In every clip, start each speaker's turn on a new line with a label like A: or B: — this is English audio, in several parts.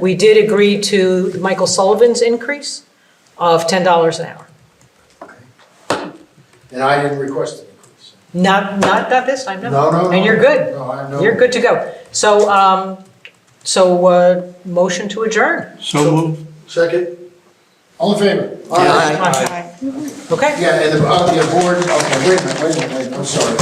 A: We did agree to Michael Sullivan's increase of $10 an hour.
B: And I didn't request an increase.
A: Not, not that this time, no.
B: No, no, no.
A: And you're good.
B: No, I know.
A: You're good to go. So, um, so, uh, motion to adjourn.
C: So moved.
B: Second? All in favor?
A: Aye. Okay?
B: Yeah, and the, uh, the board, okay, wait a minute, wait a minute, wait a minute, I'm sorry.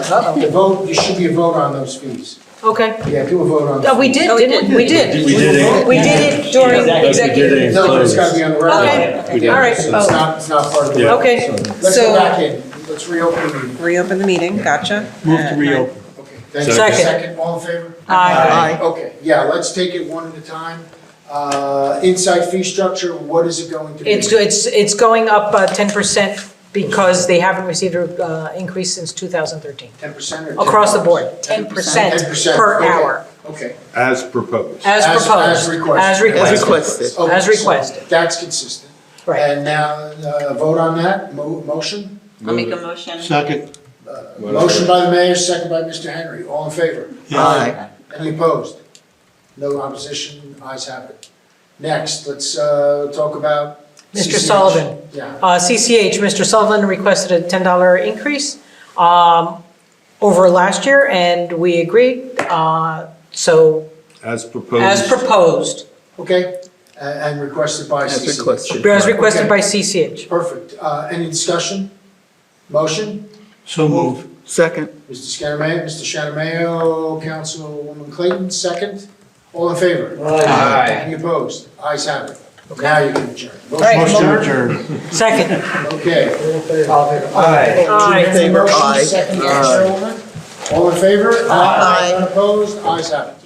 A: Uh-oh.
B: The vote, there should be a vote on those fees.
A: Okay.
B: Yeah, do a vote on. those
A: Oh, we did, didn't we? We did.
C: We did it.
A: We did it during
C: it.
A: executive.
B: No, but it's gotta be on the record.
A: Okay,
B: So
A: all right.
B: It's
A: Oh,
B: not, it's not part of the.
C: Yeah.
B: vote.
A: Okay,
B: Let's
A: so-
B: go back in, let's reopen the meeting.
D: Reopen the meeting, gotcha.
C: Move
D: Uh,
C: to reopen.
B: Okay, thank you.
A: Second.
B: Second, all in favor?
A: Aye.
B: Okay, yeah, let's take it one at a time. Uh, Inside fee structure, what is it going to be?
A: It's, it's, it's going up uh, 10% because they haven't received an increase since 2013.
B: Ten percent or?
A: Across the
B: 10%?
A: board, 10%
B: 10%,
A: per
B: okay,
A: hour,
B: Okay.
E: As proposed.
A: as
B: As- as
A: proposed.
B: requested.
A: As
B: As
A: requested,
F: requested.
B: Okay,
A: As
B: so
A: requested.
B: That's consistent.
A: right.
B: And now, uh, vote on that, mo- motion? Uh,
D: I'll make a motion.
C: Second.
B: Motion by the mayor, second by Mr. Henry, all in favor?
F: Aye.
B: Any opposed? No opposition, ayes have it. Next, let's uh, talk about.
A: Mr.
B: CCH.
A: Sullivan.
B: Yeah,
A: Uh, CCH, Mr. Sullivan requested a $10 increase um, over last year, and we agreed. uh, So
E: As
A: as
E: proposed.
A: proposed,
B: okay, a- and requested by
F: As
B: CCH.
F: requested.
A: as requested by CCH.
B: Perfect, Uh, any discussion? Motion,
C: So moved.
F: Second.
B: Mr. Scaramay, Mr. Shanamayo, Councilwoman Clayton, second, all in favor?
E: Aye.
B: Any opposed? Ayes have it. Now you can adjourn.
C: Motion to adjourn.
A: Second.
B: Okay.
A: Aye.
B: Motion,
F: Aye.
B: second, Chairwoman. All in favor?
F: Aye.
B: Unopposed? Ayes have it.